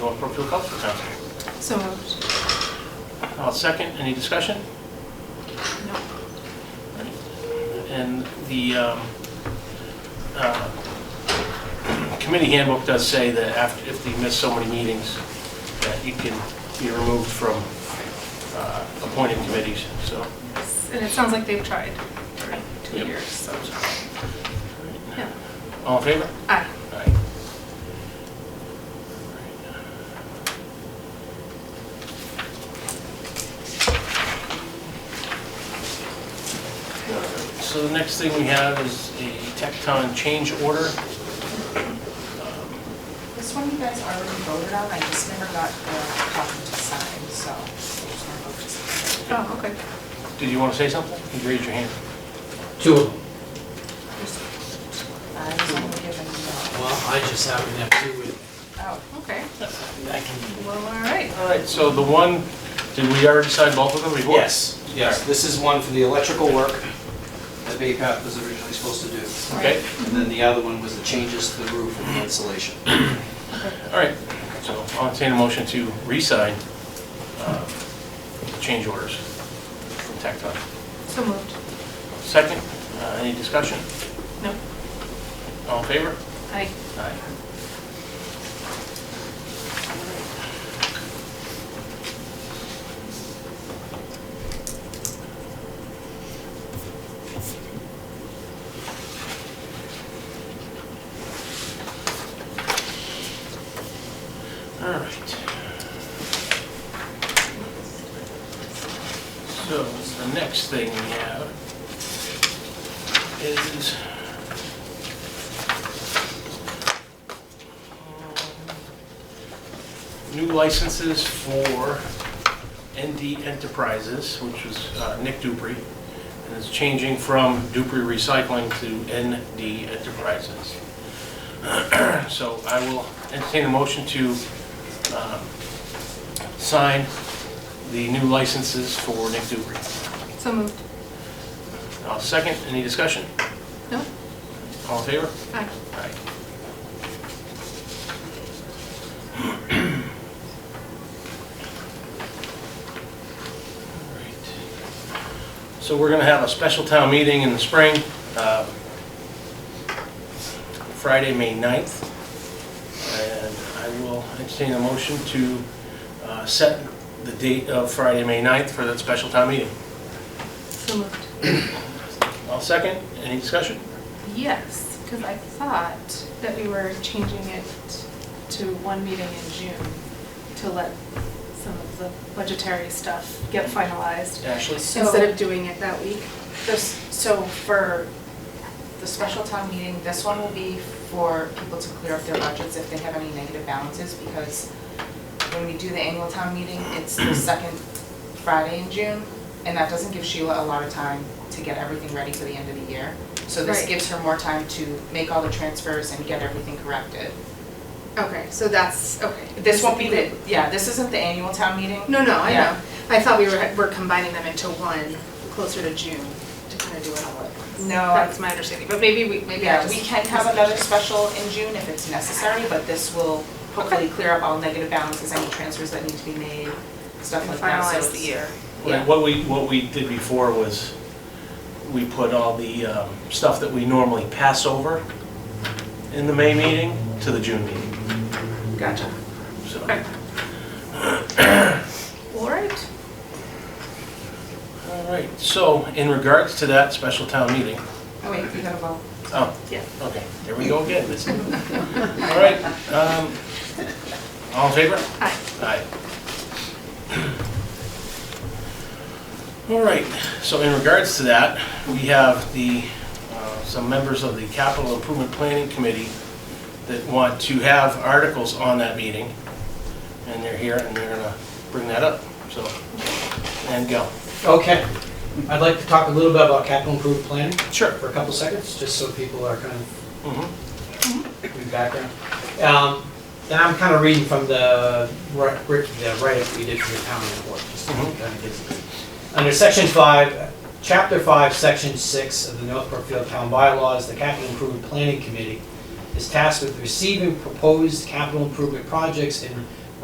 Brookfield Cultural Council. So moved. I'll Uh, second. Any discussion? No. And the um, uh, committee handbook does say that after, if you miss so many meetings, that you can be removed from uh, appointed committees, so. And it sounds like they've tried for two Yep. years, so, yeah. All in favor? Aye. Aye. So the next thing we have is a Tecton change order. This one you guys already voted on, I just never got the copy to sign, so. just wanna vote to sign. Oh, okay. Did you want to say something? You raised your hand. Two of them. I was only given, uh, Well, I just happen to have two with, oh, Okay. I can. Well, all right. All right, so the one, did we already sign both of them before? Yes, yes, this is one for the electrical work that Bay Path was originally supposed to do. Okay, And then the other one was the changes to the roof and the insulation. all right. So I'll entertain a motion to re-sign uh, change orders from Tecton. So moved. Second, uh, any discussion? No. All in favor? Aye. Aye. All right. So the next thing we have is new licenses for ND Enterprises, which is uh, Nick Dupree, and it's changing from Dupree Recycling to ND Enterprises. So I will entertain a motion to um, sign the new licenses for Nick Dupree. So moved. I'll second. Any discussion? No? All in favor? Aye. Aye. So we're gonna have a special town meeting in the spring, um, Friday, May 9th. And I will entertain a motion to uh, set the date of Friday, May 9th for that special town meeting. So moved. I'll second. Any discussion? Yes, because I thought that we were changing it to one meeting in June to let some of the budgetary stuff get finalized Ashley? instead of doing it that week. this, so for the special town meeting, this one will be for people to clear up their budgets if they have any negative balances, because when we do the annual town meeting, it's the second Friday in June, and that doesn't give Sheila a lot of time to get everything ready for the end of the year. So this Right. gives her more time to make all the transfers and get everything corrected. Okay, so that's, okay. This won't be the, yeah, this isn't the annual town meeting. No, no, I know. Yeah. I thought we were, we're combining them into one closer to June to kind of do it all at once. No, I- That's my understanding, but maybe we, maybe I Yeah, we just. can have another special in June if it's necessary, but this will hopefully clear up all negative balances, any transfers that need to be made, stuff And like that. so finalize the it's- year. Like, What we, what we did before was, we put all the um, stuff that we normally pass over in the May meeting to the June meeting, Gotcha. so. Okay. All right. All right, so in regards to that special town meeting, Oh, wait, you gotta vote. oh, Yeah. okay, there we go again. this- All right, um, all in favor? Aye. Aye. All right, so in regards to that, we have the, uh, some members of the Capital Improvement Planning Committee that want to have articles on that meeting, and they're here, and they're gonna bring that up, so, and go. Okay. I'd like to talk a little bit about capital improvement planning Sure. for a couple seconds, just so people are kind of Mhm. in the background. Um, Then I'm kind of reading from the ri- ri- the write-up we did for the town report, just to Mhm. kind of gives Under section five, chapter five, section six of the North Brookfield Town Bylaws, the Capital Improvement Planning Committee is tasked with receiving proposed capital improvement projects and